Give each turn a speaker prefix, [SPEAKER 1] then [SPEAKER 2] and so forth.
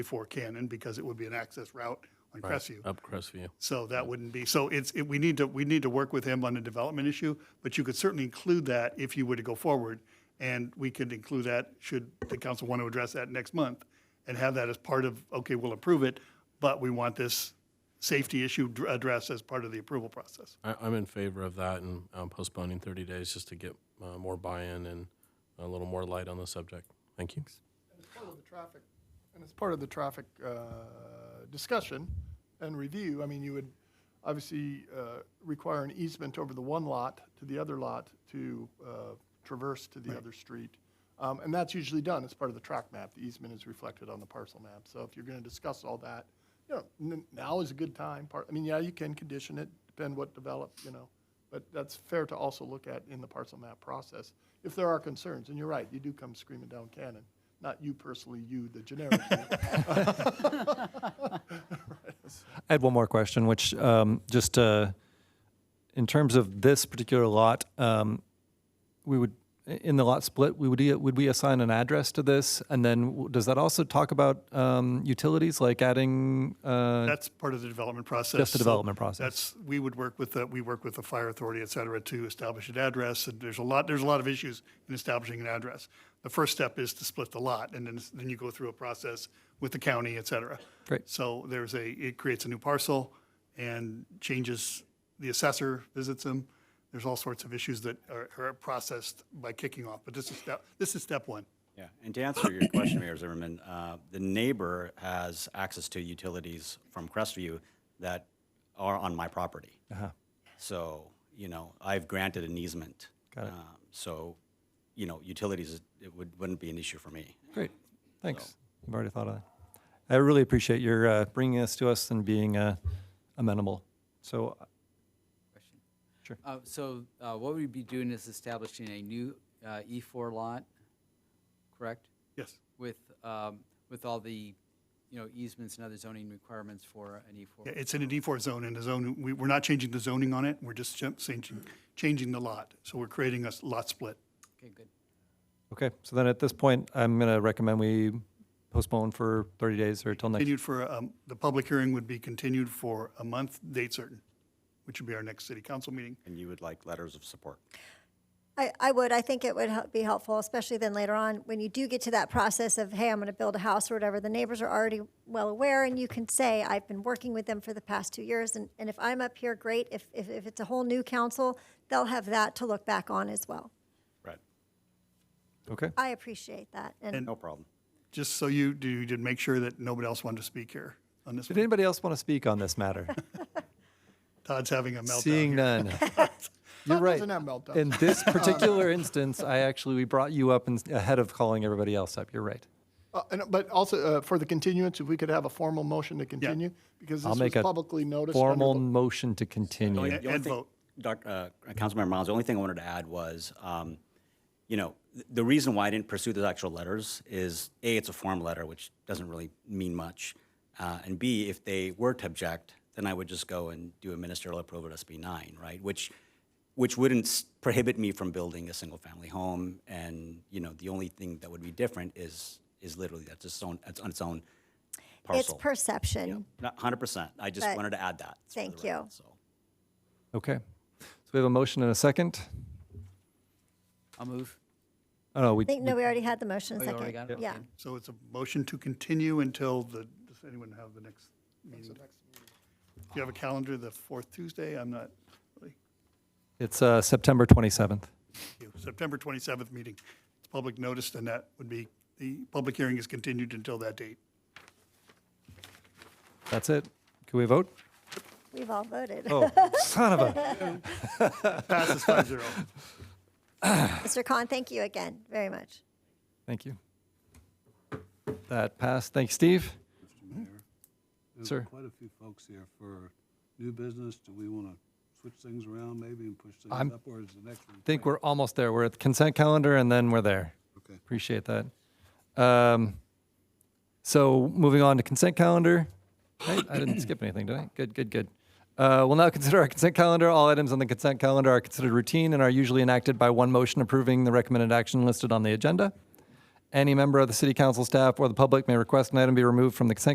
[SPEAKER 1] before Cannon because it would be an access route on Crestview.
[SPEAKER 2] Up Crestview.
[SPEAKER 1] So that wouldn't be, so it's, it- we need to, we need to work with him on the development issue, but you could certainly include that if you were to go forward. And we could include that, should the council want to address that next month, and have that as part of, okay, we'll approve it, but we want this safety issue dr- addressed as part of the approval process.
[SPEAKER 2] I, I'm in favor of that and um, postponing 30 days just to get uh, more buy-in and a little more light on the subject. Thank you.
[SPEAKER 3] As part of the traffic, and as part of the traffic uh, discussion and review, I mean, you would obviously uh, require an easement over the one lot to the other lot to uh, traverse to the other street. Um, And that's usually done as part of the track map. The easement is reflected on the parcel map. So if you're going to discuss all that, you know, n- now is a good time. Par- I mean, yeah, you can condition it, depend what develop, you know. But that's fair to also look at in the parcel map process, if there are concerns. And you're right, you do come screaming down Cannon, not you personally, you, the generic. you.
[SPEAKER 4] I had one more question, which um, just uh, in terms of this particular lot, um, we would in the lot split, we would would we assign an address to this, and then w- does that also talk about um, utilities like adding? Uh,
[SPEAKER 1] That's part of the development process.
[SPEAKER 4] Just the
[SPEAKER 1] So
[SPEAKER 4] development process.
[SPEAKER 1] That's, we would work with, the we work with the fire authority, et cetera, to establish an address. And there's a lot, there's a lot of issues in establishing an address. The first step is to split the lot, and then, then you go through a process with the county, et cetera.
[SPEAKER 4] Great.
[SPEAKER 1] So there's a, it creates a new parcel and changes, the assessor visits them. There's all sorts of issues that are, are processed by kicking off, but this is step, this is step one.
[SPEAKER 5] Yeah, and to answer your question, Mayor Zimmerman, uh, the neighbor has access to utilities from Crestview that are on my property. So, you know, I've granted an easement. Got it. So, you know, utilities, is- it would, wouldn't be an issue for me.
[SPEAKER 4] great, thanks. I've already thought of that. I really appreciate your uh, bringing this to us and being uh, amenable. So
[SPEAKER 6] Uh, So uh, what we'd be doing is establishing a new uh, E4 lot, correct?
[SPEAKER 1] Yes.
[SPEAKER 6] With, um, with all the, you know, easements and other zoning requirements for an E
[SPEAKER 1] Yeah,
[SPEAKER 6] E4?
[SPEAKER 1] It's in a D4 zone, and the zone, we, we're not changing the zoning on it, we're just ch- changing, changing the lot. So we're creating a s- lot split.
[SPEAKER 6] Okay, good.
[SPEAKER 4] okay, so then at this point, I'm going to recommend we postpone for 30 days or till next.
[SPEAKER 1] Continued for, um, the public hearing would be continued for a month, date certain, which would be our next city council meeting.
[SPEAKER 5] And you would like letters of support.
[SPEAKER 7] I, I would. I think it would hel- be helpful, especially then later on, when you do get to that process of, hey, I'm going to build a house or whatever, the neighbors are already well aware, and you can say, I've been working with them for the past two years, and, and if I'm up here, great. If, if, if it's a whole new council, they'll have that to look back on as well.
[SPEAKER 5] Right.
[SPEAKER 4] Okay.
[SPEAKER 7] I appreciate that. And
[SPEAKER 5] No problem.
[SPEAKER 1] Just so you, do you did make sure that nobody else wanted to speak here on this
[SPEAKER 4] Did
[SPEAKER 1] one.
[SPEAKER 4] anybody else want to speak on this matter?
[SPEAKER 1] Todd's having a meltdown.
[SPEAKER 4] Seeing
[SPEAKER 1] here.
[SPEAKER 4] none. You're right.
[SPEAKER 3] Doesn't have meltdowns.
[SPEAKER 4] In this particular instance, I actually, we brought you up in- ahead of calling everybody else up. You're right.
[SPEAKER 3] Uh, and- But also, uh, for the continuance, if we could have a formal motion to continue, because
[SPEAKER 4] I'll
[SPEAKER 3] this was
[SPEAKER 4] make a
[SPEAKER 3] publicly noticed. under
[SPEAKER 4] formal
[SPEAKER 3] the-
[SPEAKER 4] motion to continue.
[SPEAKER 1] And vote.
[SPEAKER 5] Doc, uh, Councilmember Miles, the only thing I wanted to add was, um, you know, th- the reason why I didn't pursue those actual letters is, A, it's a form letter, which doesn't really mean much. Uh, and B, if they were to object, then I would just go and do a ministerial approval of SB nine, right? Which, which wouldn't s- prohibit me from building a single-family home. And, you know, the only thing that would be different is, is literally that's its own, that's on its own
[SPEAKER 7] it's
[SPEAKER 5] parcel.
[SPEAKER 7] perception.
[SPEAKER 5] Hundred percent. I just
[SPEAKER 7] But-
[SPEAKER 5] wanted to add that. for the
[SPEAKER 7] Thank you.
[SPEAKER 5] record, So.
[SPEAKER 4] Okay. So we have a motion and a second.
[SPEAKER 6] I'll move.
[SPEAKER 4] Oh, no, we,
[SPEAKER 7] I think, no, we already had the motion
[SPEAKER 6] Oh, you
[SPEAKER 7] second.
[SPEAKER 6] already got it?
[SPEAKER 7] Yeah.
[SPEAKER 6] Okay.
[SPEAKER 1] So it's a motion to continue until the, does anyone have the next meeting? Do you have a calendar, the fourth Tuesday? I'm not, really-
[SPEAKER 4] it's uh, September 27th.
[SPEAKER 1] you. September 27th meeting. It's public notice, and that would be, the public hearing is continued until that date.
[SPEAKER 4] That's it. Can we vote?
[SPEAKER 7] We've all voted.
[SPEAKER 4] Oh, son of a.
[SPEAKER 1] Passes 5-0.
[SPEAKER 7] Mr. Khan, thank you again very much.
[SPEAKER 4] Thank you. That passed. Thanks, Steve.
[SPEAKER 8] There's
[SPEAKER 4] Sir.
[SPEAKER 8] Quite a few folks here for new business. Do we want to switch things around maybe and push
[SPEAKER 4] I'm-
[SPEAKER 8] things up, or is the next one?
[SPEAKER 4] I think we're almost there. We're at the consent calendar and then we're there.
[SPEAKER 8] Okay.
[SPEAKER 4] Appreciate that. Um, so moving on to consent calendar. Right? I didn't skip anything, did I? Good, good, good. Uh, we'll now consider our consent calendar. All items on the consent calendar are considered routine and are usually enacted by one motion approving the recommended action listed on the agenda. Any member of the city council staff or the public may request an item be removed from the consent